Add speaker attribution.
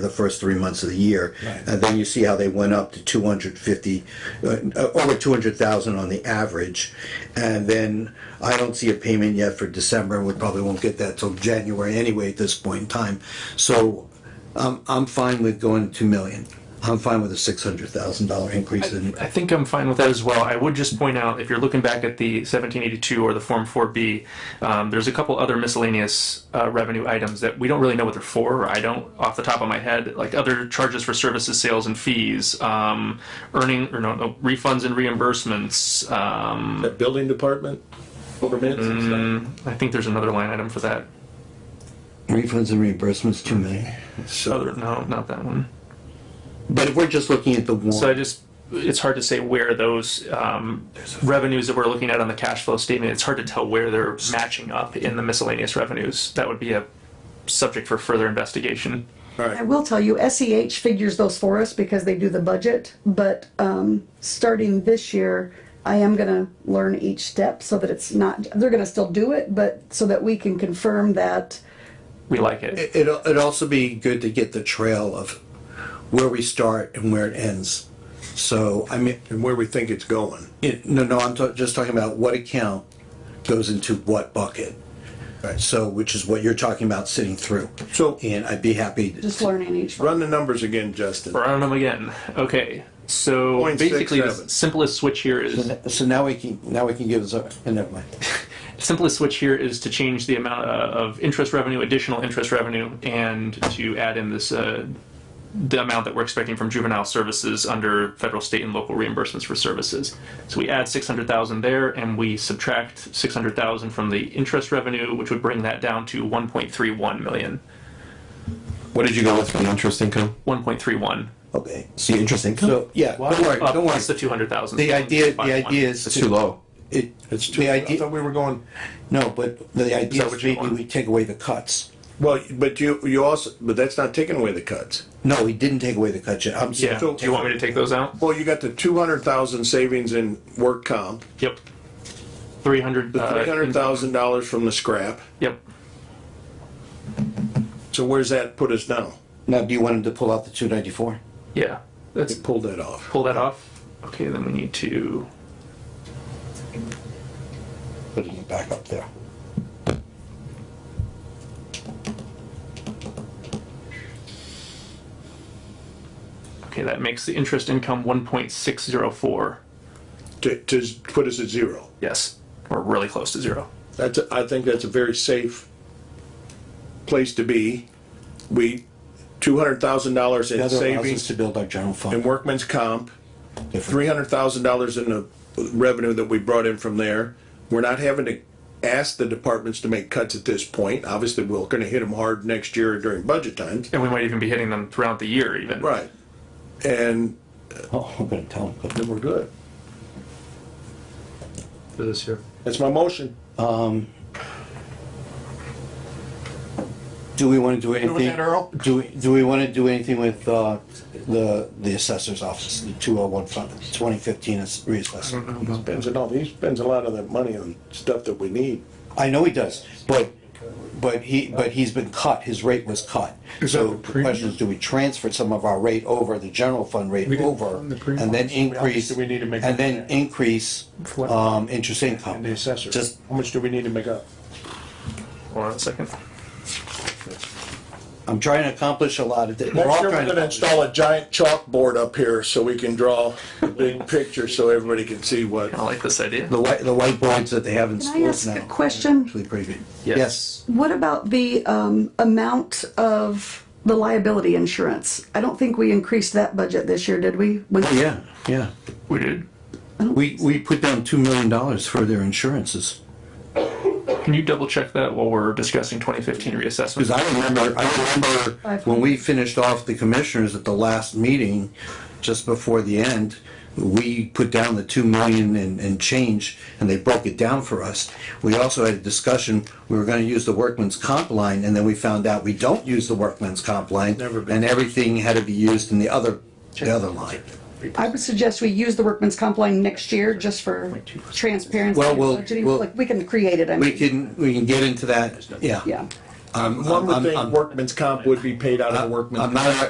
Speaker 1: the first three months of the year.
Speaker 2: Right.
Speaker 1: And then you see how they went up to 250, uh, over 200,000 on the average. And then I don't see a payment yet for December, and we probably won't get that till January anyway at this point in time. So um, I'm fine with going to 2 million. I'm fine with a $600,000 increase in,
Speaker 3: I think I'm fine with that as well. I would just point out, if you're looking back at the 1782 or the Form 4B, um, there's a couple other miscellaneous uh, revenue items that we don't really know what they're for, or I don't off the top of my head, like other charges for services, sales, and fees, um, earning, or no, no, refunds and reimbursements. Um,
Speaker 2: That building department Mm-hmm. permits and stuff.
Speaker 3: I think there's another line item for that.
Speaker 1: refunds and reimbursements, 2 million.
Speaker 3: Other, no, not that one.
Speaker 1: But if we're just looking at the
Speaker 3: So I
Speaker 1: one,
Speaker 3: just, it's hard to say where those um, revenues that we're looking at on the cash flow statement, it's hard to tell where they're matching up in the miscellaneous revenues. That would be a subject for further investigation.
Speaker 4: I will tell you, SEH figures those for us because they do the budget, but um, starting this year, I am gonna learn each step so that it's not, they're gonna still do it, but so that we can confirm that
Speaker 3: We like it.
Speaker 1: it'll, it'd also be good to get the trail of where we start and where it ends. So, I mean,
Speaker 2: And where we think it's going.
Speaker 1: It- No, no, I'm ta- just talking about what account goes into what bucket.
Speaker 2: Right.
Speaker 1: So, which is what you're talking about sitting through.
Speaker 2: So-
Speaker 1: And I'd be happy, to-
Speaker 4: just learning each.
Speaker 2: Run the numbers again, Justin.
Speaker 3: Run them again. Okay, so
Speaker 2: Point six
Speaker 3: basically the
Speaker 2: seven.
Speaker 3: simplest switch here is,
Speaker 1: so now we can, now we can give us, a- and never mind.
Speaker 3: simplest switch here is to change the amount uh, of interest revenue, additional interest revenue, and to add in this, uh, the amount that we're expecting from juvenile services under federal, state, and local reimbursements for services. So we add 600,000 there, and we subtract 600,000 from the interest revenue, which would bring that down to 1.31 million.
Speaker 5: What did you go with for the interest income?
Speaker 3: 1.31.
Speaker 1: Okay,
Speaker 5: The interest income?
Speaker 1: so, yeah, don't worry,
Speaker 3: Up
Speaker 1: don't worry.
Speaker 3: plus the 200,000.
Speaker 1: The idea, the
Speaker 3: Bottom line.
Speaker 1: idea is.
Speaker 5: It's too low.
Speaker 1: It,
Speaker 2: It's too,
Speaker 1: the
Speaker 2: I
Speaker 1: idea,
Speaker 2: thought we were going,
Speaker 1: no, but the idea
Speaker 3: what
Speaker 1: is
Speaker 3: you
Speaker 1: maybe
Speaker 3: want?
Speaker 1: we take away the cuts.
Speaker 2: well, but you, you also, but that's not taking away the cuts.
Speaker 1: No, we didn't take away the cuts yet. I'm
Speaker 3: Yeah,
Speaker 1: sorry.
Speaker 3: do you want me to take those out?
Speaker 2: Well, you got the two hundred thousand savings in work comp,
Speaker 3: Yep. 300.
Speaker 2: the
Speaker 3: uh,
Speaker 2: three hundred thousand dollars from the scrap.
Speaker 3: Yep.
Speaker 2: So where's that put us now?
Speaker 1: Now, do you want him to pull out the two ninety-four?
Speaker 3: Yeah, that's
Speaker 2: Pull that off.
Speaker 3: pull that off. Okay, then we need to.
Speaker 1: Put it back up there.
Speaker 3: Okay, that makes the interest income 1.604.
Speaker 2: To, to put us at zero.
Speaker 3: Yes, we're really close to zero.
Speaker 2: That's, a- I think that's a very safe place to be. We, two hundred thousand dollars
Speaker 1: The
Speaker 2: in
Speaker 1: other allows us
Speaker 2: savings
Speaker 1: to build our general
Speaker 2: in
Speaker 1: fund.
Speaker 2: workman's comp,
Speaker 1: Different.
Speaker 2: three hundred thousand dollars in the revenue that we brought in from there. We're not having to ask the departments to make cuts at this point. Obviously, we're gonna hit them hard next year during budget times.
Speaker 3: And we might even be hitting them throughout the year, even.
Speaker 2: Right. And
Speaker 1: Oh, I'm gonna tell him. but-
Speaker 2: then we're good.
Speaker 3: For this year.
Speaker 2: That's my motion.
Speaker 1: Do we want to do anything?
Speaker 2: with that, Earl?
Speaker 1: Do we, do we want to do anything with, uh, the, the assessor's office, the two oh one fund, twenty fifteen is reassessment?
Speaker 2: Spends it all, he spends a lot of that money on stuff that we need.
Speaker 1: I know he does, but, but he, but he's been cut, his rate was cut. So the question is, do we transfer some of our rate over, the general fund rate over? And then increase,
Speaker 2: do we need to make
Speaker 1: and then
Speaker 2: up for
Speaker 1: increase, um, interest income? Just,
Speaker 2: How much do we need to make up?
Speaker 3: Hold on a second.
Speaker 1: I'm trying to accomplish a lot of, thi- we're all
Speaker 2: Next year, we're
Speaker 1: trying
Speaker 2: gonna
Speaker 1: to.
Speaker 2: install a giant chalkboard up here so we can draw a big picture so everybody can see what.
Speaker 3: I like this idea.
Speaker 1: The white, the whiteboards that they have in
Speaker 4: Can I
Speaker 1: schools
Speaker 4: ask
Speaker 1: now.
Speaker 4: a
Speaker 1: are
Speaker 4: question?
Speaker 1: Actually pretty good.
Speaker 4: What about the um, amount of the liability insurance? I don't think we increased that budget this year, did we? When-
Speaker 1: Yeah, yeah.
Speaker 3: We did.
Speaker 1: We, we put down two million dollars for their insurances.
Speaker 3: Can you double check that while we're discussing 2015 reassessment?
Speaker 1: Because I remember, I remember when we finished off the commissioners at the last meeting, just before the end, we put down the two million and, and change, and they broke it down for us. We also had a discussion, we were gonna use the workman's comp line, and then we found out we don't use the workman's comp line.
Speaker 2: Never been.
Speaker 1: And everything had to be used in the other, the other line.
Speaker 4: I would suggest we use the workman's comp line next year just for transparency.
Speaker 1: Well, we'll-
Speaker 4: budgeting.
Speaker 1: we'll-
Speaker 4: Like, we can create it, I
Speaker 1: We
Speaker 4: mean,
Speaker 1: can, we can get into that, yeah.
Speaker 4: yeah.
Speaker 1: I'm-
Speaker 2: One would
Speaker 1: I'm-
Speaker 2: think uh,
Speaker 1: I'm-
Speaker 2: workman's comp would be paid out of workman's.
Speaker 1: I'm not,